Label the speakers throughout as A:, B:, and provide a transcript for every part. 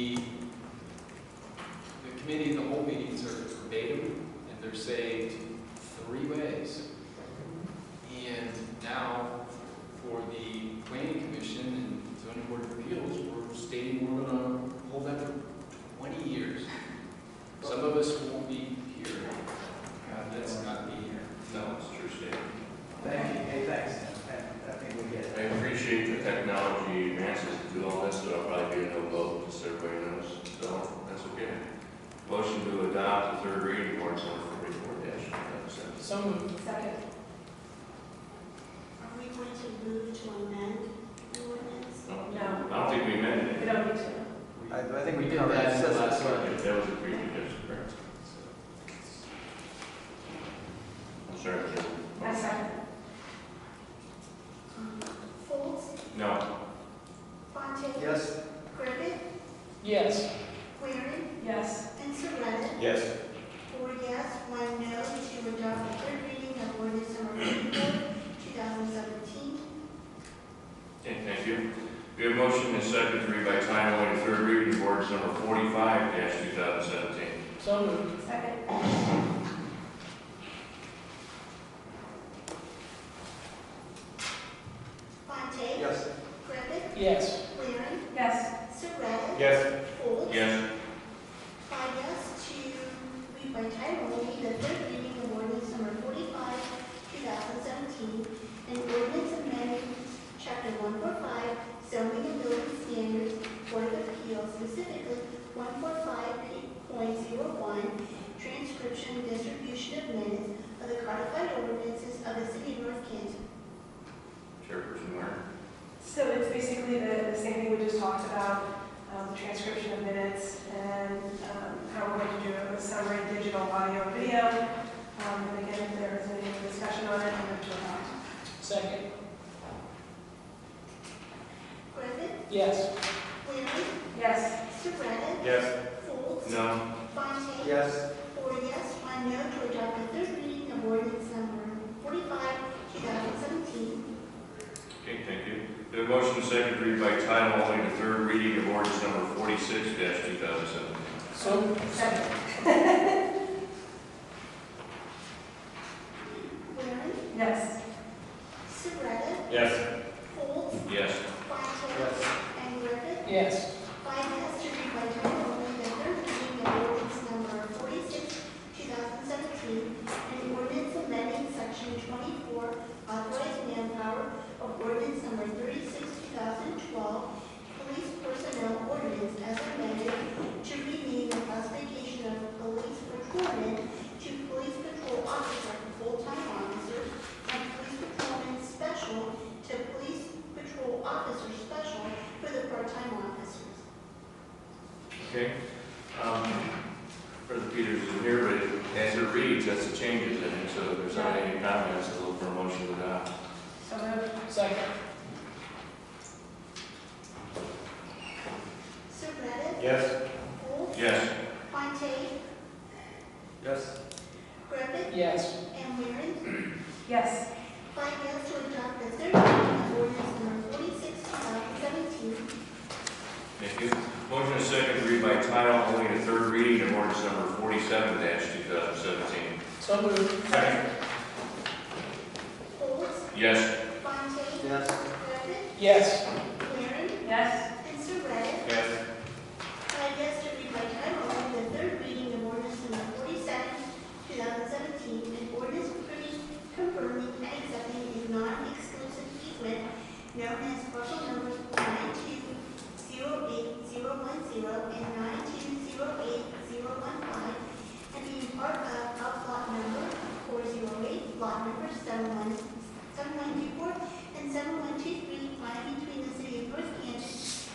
A: The the committee, the whole meetings are verbatim, and they're saved three ways. And now, for the planning commission and zoning board of appeals, we're stating we're gonna hold that for twenty years. Some of us won't be here, Uh, let's not be here.
B: No, it's a true statement.
C: Thank you, hey, thanks, I I think we get it.
B: I appreciate the technology advances to do all this, but I'll probably be a no vote, just so everybody knows, so that's okay. Motion to adopt the third reading of ordinance number forty-four
A: Some of
D: Second.
E: Are we going to move to amend the ordinance?
D: No.
B: I don't think we amended
D: We
B: it.
D: don't need to.
C: I, I think we
A: We did
C: did that.
A: that in the
C: That's-
A: last one.
B: If That was a precondition, correct? I'm sorry.
D: I
B: Jim.
D: second.
E: Folds,
B: No,
E: Fontaine.
C: Yes,
E: Griffith,
A: Yes.
E: Waring,
D: Yes.
E: and Surratt.
B: yes,
E: Four yes, one no, to adopt the third reading of ordinance number fifty-four, two thousand seventeen.
B: okay, thank you. We have motion and second to read by title only, the third reading of ordinance number forty-five two thousand seventeen.
A: So moved.
D: Second.
E: Fontaine.
C: yes,
E: Griffith,
A: Yes.
E: Waring,
D: Yes.
E: Surratt.
B: Yes.
E: Folds.
B: Yes,
E: Five yes, to read by title only, the third reading of ordinance number forty-five, two thousand seventeen, and ordinance amending chapter one four five, zoning and building standards, Board of Appeals, specifically one four five point zero one, transcription and distribution of minutes of the codified ordinances of the city of North Canton.
B: Chairperson Warren.
D: So it's basically the, the same thing we just talked about, um, transcription of minutes and, um, how we're going to do it with summary, digital, audio, and video. Um, and again, if there is any discussion on it, I'm going to adopt.
A: Second.
E: Griffith,
A: Yes.
E: Waring,
D: Yes.
E: Surratt,
B: Yes.
E: Folds,
B: No.
E: Fontaine.
C: yes,
E: Four yes, one no to adopt the third reading of ordinance number forty-five, two thousand seventeen.
B: Okay, thank you. The motion is second to read by title only the third reading of ordinance number forty-six two thousand seventeen.
A: So.
D: Second.
E: Waring,
D: Yes.
E: Surratt,
B: Yes.
E: Folds,
B: Yes.
E: Fontaine,
C: yes,
E: and Griffith.
A: Yes.
E: Five yes to read by title only the third reading of ordinance number forty-six, two thousand seventeen, and ordinance amending section twenty-four, authorized manpower of ordinance number thirty-six, two thousand twelve, police personnel ordinance as amended to rename the classification of police patrolman to police patrol officer, full-time officer, and police patrolman special to police patrol officer special for the part-time officers.
B: Okay. Um, President Peters is here, but as it reads, that's the changes in it, so if there's not any comments, I'll look for a motion to adopt.
D: So moved.
A: Second.
E: Surratt,
B: Yes.
E: Golds,
B: Yes.
E: Fontaine,
C: yes,
E: Griffith,
A: Yes.
E: and Waring.
D: Yes.
E: Five yes to adopt the third reading of ordinance number forty-six, two thousand seventeen.
B: Thank you. Motion is second to read by title only the third reading of ordinance number forty-seven two thousand seventeen.
A: So moved.
B: Second.
E: Golds,
B: Yes.
E: Fontaine,
C: yes,
E: Griffith,
A: Yes.
E: Waring,
D: Yes.
E: and Surratt.
B: Yes.
E: Five yes to read by title only the third reading of ordinance number forty-seven, two thousand seventeen, and ordinance approving, confirming, and accepting a non-exclusive easement known as parcel numbers nine two zero eight zero one zero and nine two zero eight zero one five, and being part of outlot number four zero eight, lot number seven one, seven one two four, and seven one two three, lying between the city of North Canton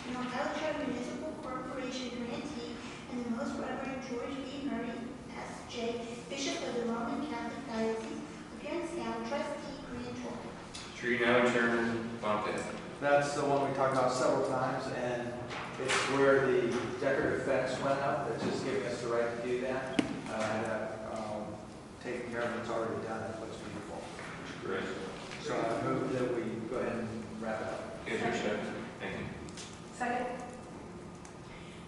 E: and Ohio Charter Municipal Corporation grantee and the Most Reverend George B. Murray S. J., Bishop of the Roman Catholic Diocese, appearance now trustee grantor.
B: Tree now, Chairman Fontaine.
C: that's the one we talked about several times, and it's where the decorative fence went up, that's just giving us the right to do that. Uh, and, uh, um, taking care of it's already done, that looks beautiful.
B: Great.
C: So I move that we go ahead and wrap it up.
B: Is there a second? Thank you.
D: Second.